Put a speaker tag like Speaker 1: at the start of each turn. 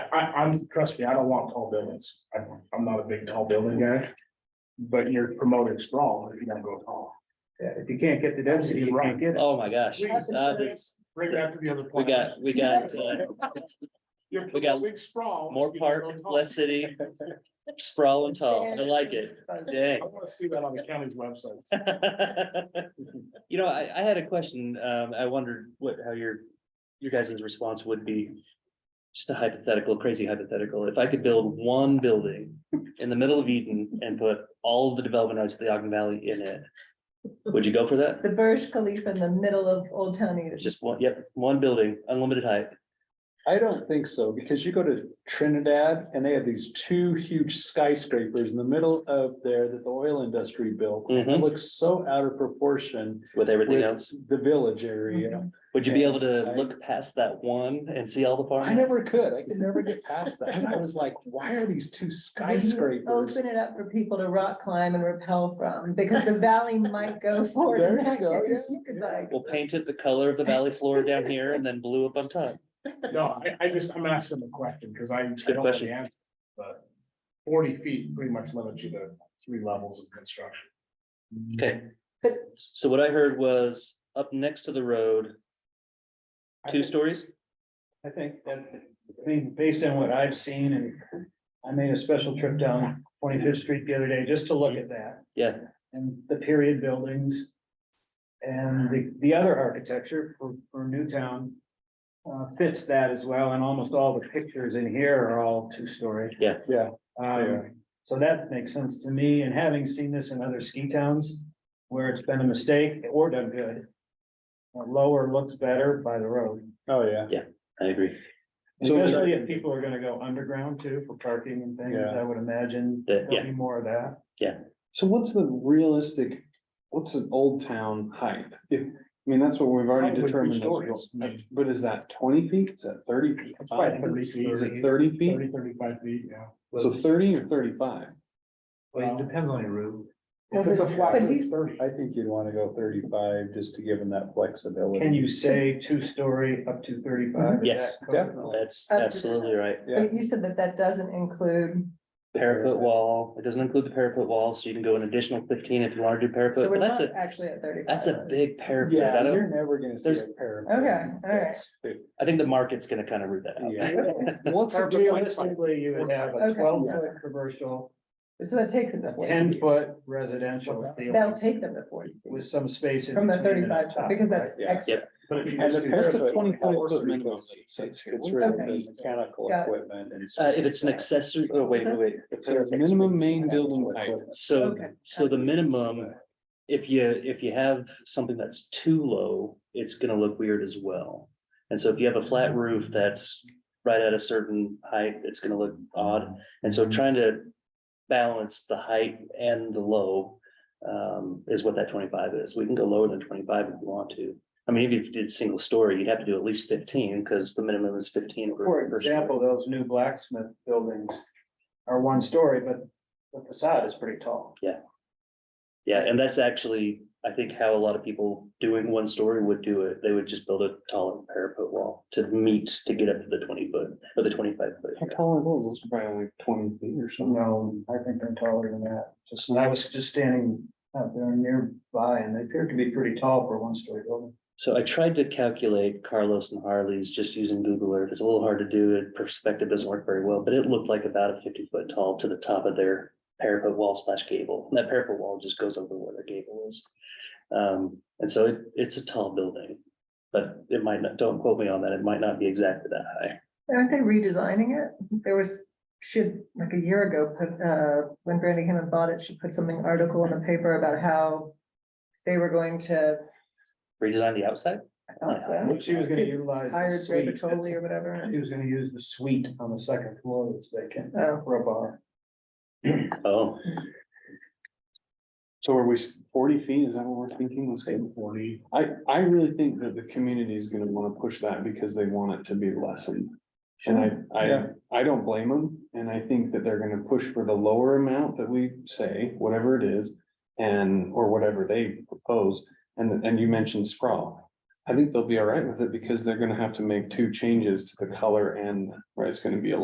Speaker 1: I, I'm, trust me, I don't want tall buildings. I, I'm not a big tall building guy. But you're promoting sprawl if you don't go tall.
Speaker 2: Yeah, if you can't get the density, you can't get it.
Speaker 3: Oh, my gosh. Uh, this-
Speaker 1: Right after the other.
Speaker 3: We got, we got, uh,
Speaker 1: You're
Speaker 3: we got
Speaker 1: promoting sprawl.
Speaker 3: more
Speaker 1: if you
Speaker 3: park,
Speaker 1: don't go tall.
Speaker 3: less city, sprawl and tall. I like it.
Speaker 1: I
Speaker 3: Dang.
Speaker 1: wanna see that on the county's website.
Speaker 3: You know, I, I had a question. Um, I wondered what, how your, your guys' response would be. Just a hypothetical, crazy hypothetical. If I could build one building in the middle of Eden and put all of the development rights of the Ogden Valley in it. Would you go for that?
Speaker 4: The Burj Khalifa in the middle of Old Town Eden.
Speaker 3: It's just one, yep, one building, unlimited height.
Speaker 2: I don't think so, because you go to Trinidad and they have these two huge skyscrapers in the middle of there that the oil industry built. It
Speaker 3: Mhm.
Speaker 2: looks so out of proportion
Speaker 3: With everything
Speaker 2: Mm-hmm. with
Speaker 3: else.
Speaker 2: the village area.
Speaker 3: Would you be able to
Speaker 2: I-
Speaker 3: look past that one and see all the
Speaker 2: I
Speaker 3: farm?
Speaker 2: never could, I could never get past that. And I was like, why are these two
Speaker 4: When Mhm. you
Speaker 2: skyscrapers?
Speaker 4: Open it up for people to rock climb and rappel from, because the valley might go forward.
Speaker 2: There
Speaker 4: in
Speaker 2: you
Speaker 4: that
Speaker 2: go,
Speaker 4: case.
Speaker 2: yeah,
Speaker 4: You could
Speaker 2: yeah.
Speaker 4: like-
Speaker 3: We'll paint it the color of the valley floor down here and then blue up on top.
Speaker 1: No, I, I just, I'm asking the question, because I. I
Speaker 3: good
Speaker 1: don't know the
Speaker 3: question.
Speaker 1: answer, But forty feet pretty much limits you to three levels of construction.
Speaker 3: Okay.
Speaker 4: But-
Speaker 3: So what I heard was up next to the road, two stories?
Speaker 5: I think that, I mean, based on what I've seen and I made a special trip down Twenty Fifth Street the other day just to look at that
Speaker 3: Yeah,
Speaker 5: and the period buildings. And the, the other architecture for, for Newtown uh, fits that as well. And almost all the pictures in here are all two-story.
Speaker 3: Yeah.
Speaker 2: Yeah. Yeah.
Speaker 5: Um, so that makes sense to me. And having seen this in other ski towns where it's been a mistake or done good. uh, Lower looks better by the road.
Speaker 2: Oh, yeah.
Speaker 3: I agree.
Speaker 2: So-
Speaker 5: Especially if people are gonna go underground too for parking and things,
Speaker 2: Yeah.
Speaker 5: I would imagine
Speaker 3: That-
Speaker 5: there'll be more of that.
Speaker 2: So what's the realistic, what's an old town height? If, I mean, that's what we've already
Speaker 1: Probably three
Speaker 2: determined.
Speaker 1: stories.
Speaker 2: is- But is that twenty feet? Is that thirty? feet?
Speaker 1: It's probably 30 feet.
Speaker 2: Is it thirty feet?
Speaker 1: Thirty, thirty-five feet, yeah.
Speaker 2: So thirty or thirty-five?
Speaker 1: Well, it
Speaker 5: depends on your roof.
Speaker 1: If it's a flat
Speaker 4: But
Speaker 1: roof,
Speaker 4: he's-
Speaker 1: 30.
Speaker 2: I think you'd want to go thirty-five, just to give them that
Speaker 5: Can
Speaker 2: flexibility.
Speaker 5: you say two-story up to thirty-five? Is
Speaker 3: Mm-hmm. Yes.
Speaker 5: that code?
Speaker 2: Definitely.
Speaker 3: That's absolutely right.
Speaker 2: Yeah.
Speaker 4: But you said that that doesn't include,
Speaker 3: Parapet wall, it doesn't include the parapet wall, so you can go an additional fifteen if you want to do
Speaker 4: so
Speaker 3: parapet,
Speaker 4: we're
Speaker 3: but
Speaker 4: not
Speaker 3: that's a,
Speaker 4: actually at thirty.
Speaker 3: that's a big parapet. I
Speaker 2: Yeah,
Speaker 3: don't,
Speaker 2: you're never gonna see
Speaker 3: There's-
Speaker 2: a pair.
Speaker 4: Okay, all right.
Speaker 3: I think the market's gonna kind of root that out.
Speaker 2: What's
Speaker 5: So
Speaker 2: a good height?
Speaker 5: Realistically, you would have a
Speaker 4: Okay.
Speaker 5: twelve-foot commercial,
Speaker 4: So that takes them to forty.
Speaker 5: ten-foot residential
Speaker 4: That'll take them to forty
Speaker 5: with some space. in
Speaker 4: from the
Speaker 5: between and
Speaker 4: thirty-five,
Speaker 5: on top,
Speaker 4: because that's
Speaker 2: Yeah.
Speaker 4: extra.
Speaker 1: But if you
Speaker 2: And
Speaker 1: just
Speaker 2: the
Speaker 1: do
Speaker 2: parapet
Speaker 1: parapet,
Speaker 2: twenty-five
Speaker 1: horse
Speaker 2: foot minimum,
Speaker 1: radius,
Speaker 2: so it's,
Speaker 1: it's
Speaker 2: it's really
Speaker 4: okay.
Speaker 2: the mechanical
Speaker 4: Got it.
Speaker 2: equipment and.
Speaker 3: Uh, if it's an accessory, oh, wait, wait, wait.
Speaker 2: So it's minimum main building height.
Speaker 3: So,
Speaker 4: Okay.
Speaker 3: so the minimum, if you, if you have something that's too low, it's gonna look weird as well. And so if you have a flat roof that's right at a certain height, it's gonna look odd. And so trying to balance the height and the low um, is what that twenty-five is. We can go lower than twenty-five if we want to. I mean, if you did single story, you'd have to do at least fifteen, because the minimum is fifteen.
Speaker 5: For example, those new blacksmith buildings are one story, but the facade is pretty tall.
Speaker 3: Yeah, and that's actually, I think, how a lot of people doing one story would do it. They would just build a taller parapet wall to meet to get up to the twenty foot or the twenty five
Speaker 2: How
Speaker 3: foot.
Speaker 2: tall are those? Those are probably only twenty feet or something.
Speaker 5: No, I think they're taller than that. Just, and I was just standing out there nearby and they appeared to be pretty tall for a one-story building.
Speaker 3: So I tried to calculate Carlos and Harley's just using Google Earth. It's a little hard to do. it. Perspective doesn't work very well, but it looked like about a fifty foot tall to the top of their parapet wall slash gable. And that parapet wall just goes over where their gable is. Um, and so it, it's a tall building, but it might not, don't quote me on that. It might not be exactly that high.
Speaker 4: Aren't they redesigning it? There was, should, like a year ago, put, uh, when Brandy came and bought it, she put something article in the paper about how they were going to.
Speaker 3: Redesign the outside?
Speaker 4: I thought so.
Speaker 5: She was gonna utilize. the
Speaker 4: Hired Ray
Speaker 5: suite.
Speaker 4: Patoli or whatever.
Speaker 5: She was gonna use the suite on the second floor that's vacant
Speaker 4: Oh,
Speaker 5: for a bar.
Speaker 3: Oh,
Speaker 2: So are we s- forty feet? Is that what we're thinking? Let's say forty. I, I really think that the community is gonna wanna push that because they want it to be lessened. And I, I,
Speaker 5: Yeah.
Speaker 2: I don't blame them, and I think that they're gonna push for the lower amount that we say, whatever it is. And, or whatever they propose, and, and you mentioned sprawl. I think they'll be all right with it because they're gonna have to make two changes to the color and, right, it's gonna be a